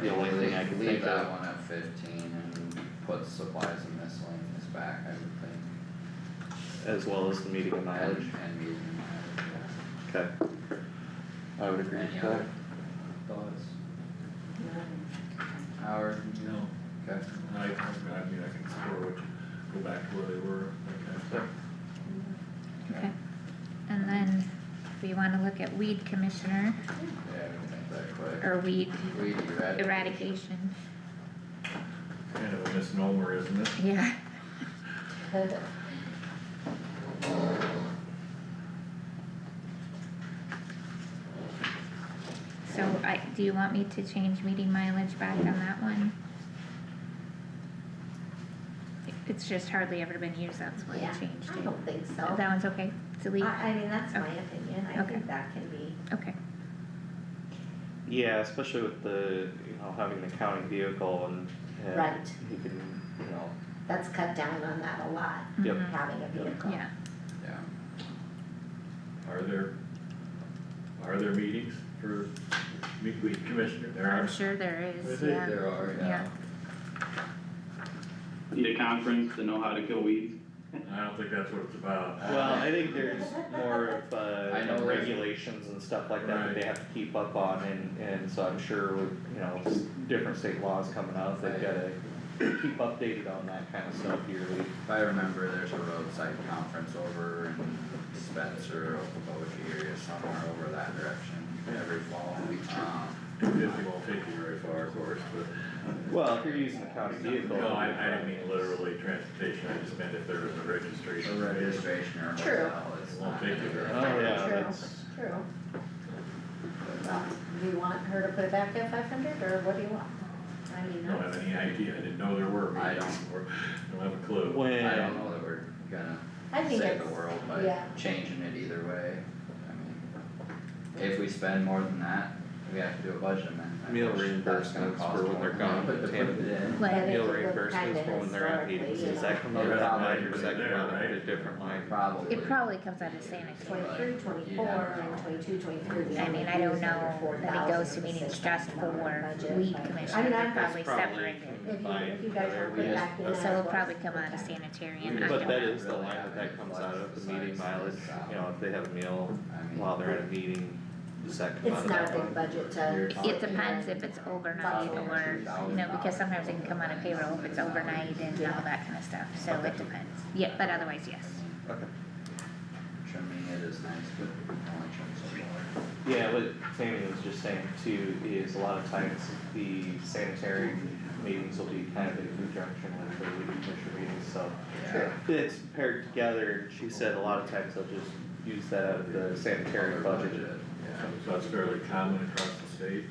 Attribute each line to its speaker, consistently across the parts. Speaker 1: The only thing I can
Speaker 2: Leave
Speaker 1: think
Speaker 2: that
Speaker 1: of,
Speaker 2: one at fifteen and put supplies and miscellaneous back, I would think,
Speaker 1: as well as the meeting and mileage,
Speaker 2: and, and meeting mileage,
Speaker 1: okay. I would
Speaker 2: yeah.
Speaker 1: agree
Speaker 2: Any
Speaker 1: with that.
Speaker 2: other thoughts? Howard?
Speaker 3: No,
Speaker 2: Okay,
Speaker 3: I, I mean, I can score which, go back to where they were, okay.
Speaker 2: okay,
Speaker 4: Okay. And then we wanna look at weed commissioner
Speaker 2: yeah, we can make that quick.
Speaker 4: or weed
Speaker 2: We eradicated.
Speaker 4: Er, eradication,
Speaker 3: Kind of a misnomer, isn't it?
Speaker 4: yeah. So I, do you want me to change meeting mileage back on that one? It's just hardly ever been used, that's why
Speaker 5: Yeah,
Speaker 4: I changed
Speaker 5: I
Speaker 4: it.
Speaker 5: don't think so.
Speaker 4: That one's okay, to leave,
Speaker 5: I, I mean, that's my
Speaker 4: Okay.
Speaker 5: opinion, I
Speaker 4: Okay.
Speaker 5: think that can be,
Speaker 4: okay,
Speaker 1: Yeah, especially with the, you know, having the county vehicle and, and
Speaker 5: Right.
Speaker 1: you can, you know,
Speaker 5: that's cut down on that a lot,
Speaker 1: Yep.
Speaker 4: Mhm.
Speaker 5: having a vehicle.
Speaker 4: yeah,
Speaker 2: Yeah,
Speaker 3: Are there, are there meetings for meet weed commissioner? There
Speaker 4: I'm
Speaker 3: are,
Speaker 4: sure there is,
Speaker 3: Is
Speaker 4: yeah.
Speaker 3: it
Speaker 2: there are, yeah,
Speaker 4: Yeah.
Speaker 6: Need a conference to know how to kill weeds?
Speaker 3: I don't think that's what it's about.
Speaker 1: Well, I think there's more of, uh,
Speaker 2: I know there's-
Speaker 1: regulations and stuff like that that they
Speaker 3: Right.
Speaker 1: have to keep up on, and, and so I'm sure with, you know, s- different state laws coming out, they've
Speaker 2: Right.
Speaker 1: gotta keep updated on that kind of stuff yearly.
Speaker 2: if I remember, there's a roadside conference over in Spencer, Okoboji area, somewhere over that direction, every fall, um.
Speaker 3: Two fifty won't take you very far, of course, but.
Speaker 1: Well, if you're using the county vehicle.
Speaker 3: No, I, I didn't mean literally transportation, I just meant if there was a
Speaker 2: The
Speaker 3: registration.
Speaker 2: registration or
Speaker 5: True.
Speaker 2: hotel is
Speaker 3: Won't
Speaker 2: not
Speaker 3: take you very
Speaker 1: Oh,
Speaker 3: far.
Speaker 1: yeah,
Speaker 5: True.
Speaker 1: that's,
Speaker 5: True. Well, do you want her to put it back at five hundred, or what do you want? I mean,
Speaker 3: Don't
Speaker 5: that's,
Speaker 3: have any idea, I didn't know there were
Speaker 2: I
Speaker 3: meetings,
Speaker 2: don't-
Speaker 3: or, don't have a clue.
Speaker 1: when.
Speaker 2: I don't know that we're gonna
Speaker 5: I think
Speaker 2: save
Speaker 5: it's,
Speaker 2: the world by
Speaker 5: yeah.
Speaker 2: changing it either way, I mean. If we spend more than that, we have to do a budget amendment.
Speaker 1: Meal
Speaker 2: which that's gonna
Speaker 1: reimbursements
Speaker 2: cost
Speaker 1: for when
Speaker 2: more
Speaker 1: they're
Speaker 2: than that,
Speaker 1: gone,
Speaker 2: But to put
Speaker 1: Tammy.
Speaker 2: it in,
Speaker 5: But
Speaker 4: Like,
Speaker 5: if you
Speaker 1: Meal
Speaker 5: look
Speaker 1: reimbursements
Speaker 5: kinda
Speaker 1: for when they're at
Speaker 5: historically,
Speaker 1: meetings,
Speaker 5: you
Speaker 1: is
Speaker 5: know,
Speaker 1: that come out of that
Speaker 2: Probably
Speaker 1: line or is that
Speaker 3: there,
Speaker 1: come out of a
Speaker 3: right?
Speaker 1: different line?
Speaker 2: probably.
Speaker 4: It probably comes out of sanitary,
Speaker 5: Twenty-three, twenty-four, and twenty-two, twenty-three.
Speaker 4: I mean, I don't know that it goes to meetings just for weed
Speaker 5: I
Speaker 4: commissioner,
Speaker 5: mean,
Speaker 4: they're
Speaker 5: I'm
Speaker 4: probably separated.
Speaker 5: If you, if you guys
Speaker 1: Combined,
Speaker 5: want to
Speaker 1: whether
Speaker 5: put
Speaker 1: we-
Speaker 5: it back in.
Speaker 4: So
Speaker 5: as
Speaker 4: it'll
Speaker 5: well.
Speaker 4: probably come out of sanitary and I don't know.
Speaker 1: But that is the
Speaker 2: Really
Speaker 1: line that that
Speaker 2: haven't
Speaker 1: comes out of, the meeting
Speaker 2: besides
Speaker 1: mileage,
Speaker 2: the
Speaker 1: you know, if they have a meal
Speaker 2: I mean,
Speaker 1: while they're at a meeting, does that come out
Speaker 5: It's
Speaker 1: of
Speaker 5: not a
Speaker 1: that line?
Speaker 5: big budget
Speaker 2: You're
Speaker 5: to.
Speaker 4: It depends if it's overnight or, you know, because sometimes it can come out of payroll if it's overnight and all that kinda stuff, so it depends. Yeah, but otherwise, yes.
Speaker 1: Okay.
Speaker 2: Trimming it is nice, but only trim some more.
Speaker 1: Yeah, what Tammy was just saying too, is a lot of times the sanitary meetings will be kind of in conjunction with the weed commission meetings, so.
Speaker 2: Yeah.
Speaker 1: It's paired together, she said a lot of times they'll just use that out of the sanitary budget.
Speaker 2: Yeah.
Speaker 3: So that's fairly common across the state.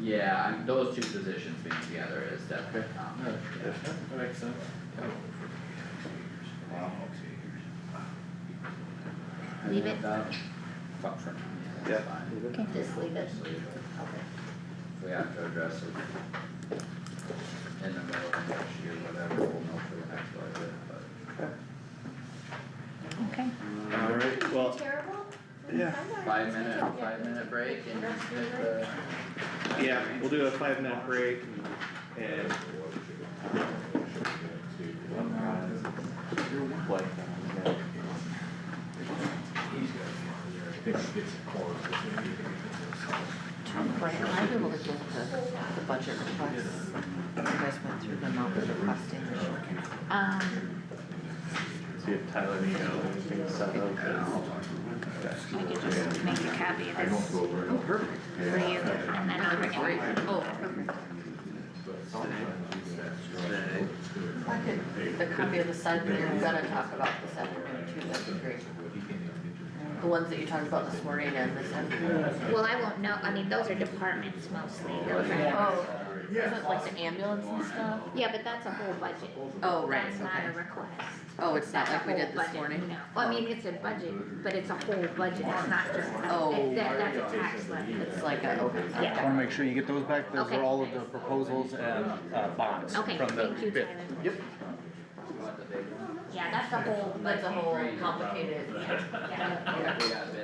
Speaker 2: Yeah, I'm, those two positions being together is definitely common.
Speaker 3: That makes sense.
Speaker 2: I
Speaker 4: Leave
Speaker 2: think
Speaker 4: it.
Speaker 2: that- Fuck for now, yeah, that's fine.
Speaker 4: Okay.
Speaker 5: Just leave it.
Speaker 2: Just leave it.
Speaker 5: Okay.
Speaker 2: If we have to address it in the middle of next year, whatever, we'll know for the next budget, but.
Speaker 4: Okay,
Speaker 1: Alright, well,
Speaker 5: Terrible?
Speaker 1: Yeah.
Speaker 2: Five minute, five minute break and hit the.
Speaker 1: yeah, we'll do a five minute break and, and, uh, like, uh,
Speaker 7: Right, am I able to get the, the budget requests? You guys went through them over the requesting issue.
Speaker 4: um,
Speaker 1: see if Tyler needs anything set up.
Speaker 4: we could just make a copy of this for you and then I'll bring it back.
Speaker 7: Oh, perfect. A copy of the side that we're gonna talk about this afternoon too, that'd be great. The ones that you talked about this morning and this afternoon.
Speaker 4: Oh, Well, I won't know, I mean, those are departments mostly, those are.
Speaker 7: Oh, is it like the ambulance and stuff?
Speaker 4: Yeah, but that's a whole budget.
Speaker 7: Oh, right,
Speaker 4: That's not a
Speaker 7: okay.
Speaker 4: request.
Speaker 7: Oh, it's not
Speaker 4: That's
Speaker 7: like
Speaker 4: a
Speaker 7: we did
Speaker 4: whole
Speaker 7: this
Speaker 4: budget,
Speaker 7: morning?
Speaker 4: No, well, I mean, it's a budget, but it's a whole budget, it's not just,
Speaker 7: Oh.
Speaker 4: it's, that, that's a tax levy.
Speaker 7: It's like a, okay.
Speaker 4: Yeah.
Speaker 8: I wanna make sure you get those back, those
Speaker 4: Okay.
Speaker 8: are all of the proposals and, uh, bonds from the
Speaker 4: Okay,
Speaker 8: bid.
Speaker 4: thank you, Tyler.
Speaker 8: Yep.
Speaker 2: Want the big one?
Speaker 4: Yeah, that's a whole,
Speaker 7: That's a whole complicated,
Speaker 4: yeah.
Speaker 2: Yeah, we got a bid